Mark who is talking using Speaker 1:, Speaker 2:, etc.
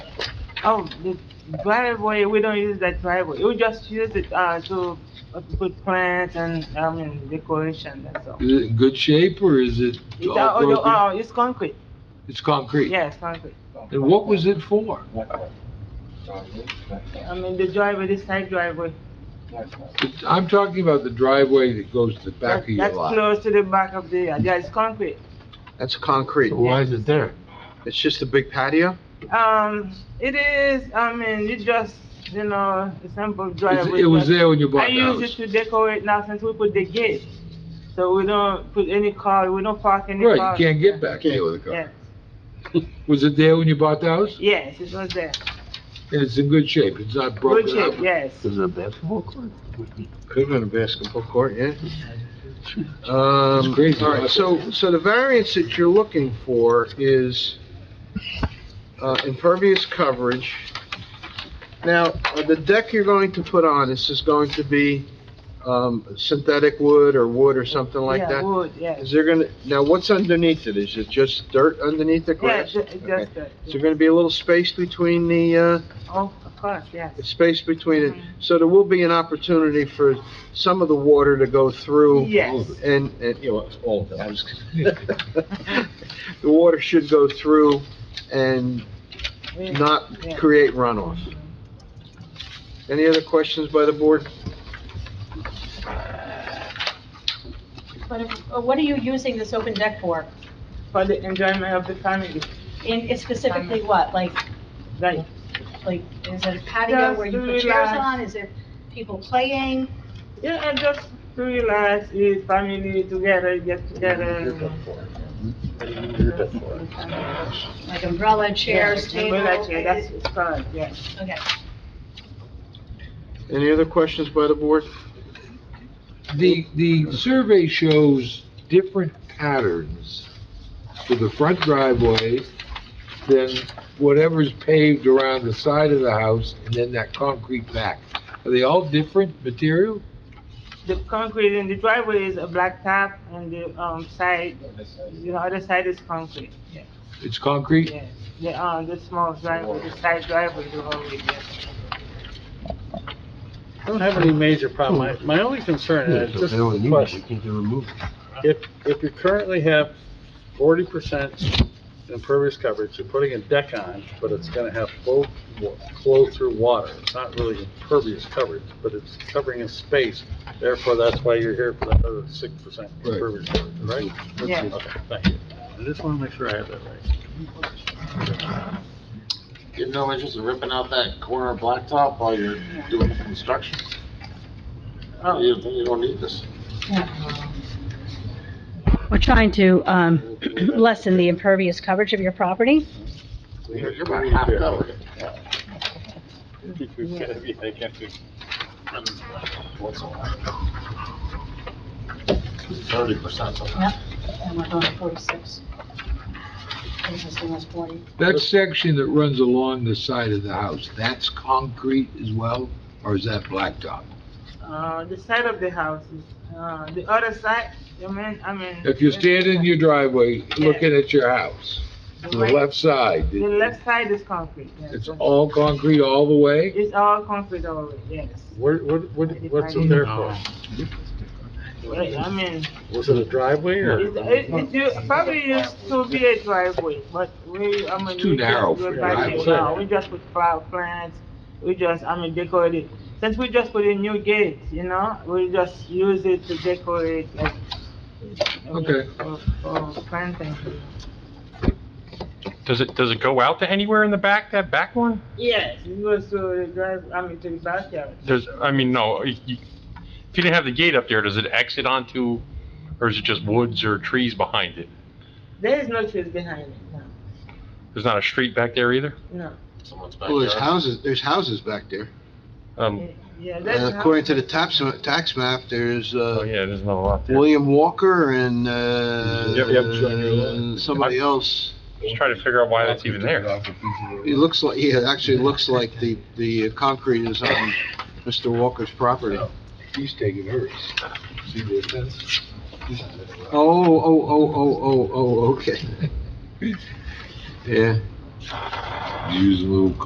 Speaker 1: Oh, the driveway, we don't use that driveway. We just use it, uh, to uh, to put plants and, I mean, decoration, that's all.
Speaker 2: Is it in good shape or is it
Speaker 1: It's, uh,
Speaker 2: all
Speaker 1: oh, no,
Speaker 2: broken?
Speaker 1: uh, it's concrete,
Speaker 2: It's concrete?
Speaker 1: yeah, it's concrete.
Speaker 2: And what was it for?
Speaker 1: I mean, the driveway, the side driveway.
Speaker 2: It's- I'm talking about the driveway that goes to the back
Speaker 1: that-
Speaker 2: of your
Speaker 1: That's
Speaker 2: lot.
Speaker 1: close to the back of the, yeah, it's concrete.
Speaker 3: That's concrete.
Speaker 4: So why is it there?
Speaker 3: It's just a big patio?
Speaker 1: Um, it is, I mean, it's just, you know, a simple
Speaker 2: It's-
Speaker 1: driveway.
Speaker 2: It was
Speaker 1: just-
Speaker 2: there when you bought
Speaker 1: I
Speaker 2: the
Speaker 1: use it
Speaker 2: house.
Speaker 1: to decorate now since we put the gate. So we don't put any car, we don't park any
Speaker 2: Right,
Speaker 1: cars.
Speaker 2: you can't get back there with a
Speaker 1: Yes,
Speaker 2: car. Was it there when you bought the house?
Speaker 1: yes, it was there.
Speaker 2: And it's in good shape, it's not
Speaker 1: Good
Speaker 2: broken up?
Speaker 1: shape, yes.
Speaker 4: Is it a basketball court?
Speaker 3: Could have been a basketball court, yeah.
Speaker 2: It's
Speaker 3: Um,
Speaker 2: crazy.
Speaker 3: all right, so, so the variance that you're looking for is, uh, impervious coverage. Now, uh, the deck you're going to put on, this is going to be, um, synthetic wood or wood or something like
Speaker 1: Yeah,
Speaker 3: that?
Speaker 1: wood, yes.
Speaker 3: Is there gonna, now what's underneath it? Is it just dirt underneath the
Speaker 1: Yeah,
Speaker 3: grass?
Speaker 1: ju- it's
Speaker 3: Okay.
Speaker 1: just that.
Speaker 3: Is there gonna be a little space between the, uh,
Speaker 1: Oh, of course, yes.
Speaker 3: space between it, so there will be an opportunity for some of the water to go through.
Speaker 1: Yes.
Speaker 3: And, and, you know, all of that, I was, the water should go through and
Speaker 1: We-
Speaker 3: not
Speaker 1: yeah.
Speaker 3: create runoff. Any other questions by the board?
Speaker 5: But uh, what are you using this open deck for?
Speaker 1: For the enjoyment of the family,
Speaker 5: And it's specifically what? Like,
Speaker 1: like,
Speaker 5: like, is it a patio where you put
Speaker 1: Just
Speaker 5: chairs
Speaker 1: relax.
Speaker 5: on? Is it people playing?
Speaker 1: yeah, and just to relax, eat family together, get together.
Speaker 5: Like umbrella, chairs,
Speaker 1: Yeah,
Speaker 5: table?
Speaker 1: umbrella chair, That's, it's correct, yes.
Speaker 5: Okay.
Speaker 3: Any other questions by the board?
Speaker 2: The, the survey shows different patterns to the front driveway than whatever's paved around the side of the house and then that concrete back. Are they all different material?
Speaker 1: The concrete in the driveway is a black top and the, um, side, the other side is concrete.
Speaker 2: It's concrete?
Speaker 1: Yeah, yeah, uh, the small driveway, the side driveway, the whole way, yes.
Speaker 6: I don't have any major problem. My, my only concern
Speaker 2: Uh,
Speaker 6: is just a question. If, if you currently have forty percent impervious coverage, you're putting a deck on, but it's gonna have flow, wa- flow through water. It's not really impervious coverage, but it's covering a space. Therefore, that's why you're here for that other six percent
Speaker 2: Right.
Speaker 6: impervious coverage, right?
Speaker 1: Yeah.
Speaker 6: Okay, thank you. I just wanna make sure I have that right.
Speaker 7: You have no interest in ripping out that corner blacktop while you're doing the construction?
Speaker 1: Oh,
Speaker 7: You, you don't need this.
Speaker 8: We're trying to um, lessen the impervious coverage of your property.
Speaker 7: You're you're about half covered. Thirty percent.
Speaker 5: And we're going to forty-six. Existing was forty.
Speaker 2: That section that runs along the side of the house, that's concrete as well, or is that blacktop?
Speaker 1: uh, the side of the house is, uh, the other side, I mean, I mean.
Speaker 2: If you're standing in your driveway, looking at your house, to the
Speaker 1: right-
Speaker 2: left side,
Speaker 1: The left side is concrete, yes.
Speaker 2: it's all concrete all the way?
Speaker 1: It's all concrete over, yes.
Speaker 6: What, what, what, what's it there for?
Speaker 1: Right, I mean,
Speaker 6: Was it a driveway or?
Speaker 1: it's, it, it probably used to be a driveway, but we, I mean.
Speaker 2: It's too
Speaker 1: we just
Speaker 2: narrow
Speaker 1: went
Speaker 2: for a
Speaker 1: back there.
Speaker 6: driveway.
Speaker 1: No, we just put flower plants, we just, I mean, decorate it. Since we just put a new gate, you know, we just use it to decorate, like. I mean,
Speaker 2: Okay.
Speaker 1: for- For planting.
Speaker 9: Does it, does it go out to anywhere in the back, that back one?
Speaker 1: Yes, it goes to the drive, I mean, to the backyard.
Speaker 9: There's, I mean, no, you- you- if you didn't have the gate up there, does it exit onto, or is it just woods or trees behind it?
Speaker 1: There is no trees behind it,
Speaker 9: There's not a street back there either?
Speaker 1: no,
Speaker 7: Someone's back
Speaker 3: Well, there's
Speaker 7: there.
Speaker 3: houses, there's houses back there.
Speaker 1: no.
Speaker 9: Um,
Speaker 1: Yeah, that's.
Speaker 3: And according to the tax, tax map, there's,
Speaker 9: oh
Speaker 3: uh,
Speaker 9: yeah, there's not a lot there.
Speaker 3: William Walker and, uh,
Speaker 2: Yep, yep, it's on your left.
Speaker 3: and somebody else.
Speaker 9: Just trying to figure out why that's even there.
Speaker 3: It looks like, yeah, it actually looks like the, the concrete is on Mr. Walker's property. Oh,
Speaker 2: He's taking hers. See the fence?
Speaker 3: oh, oh, oh, oh, oh, okay. Yeah.
Speaker 2: Use a little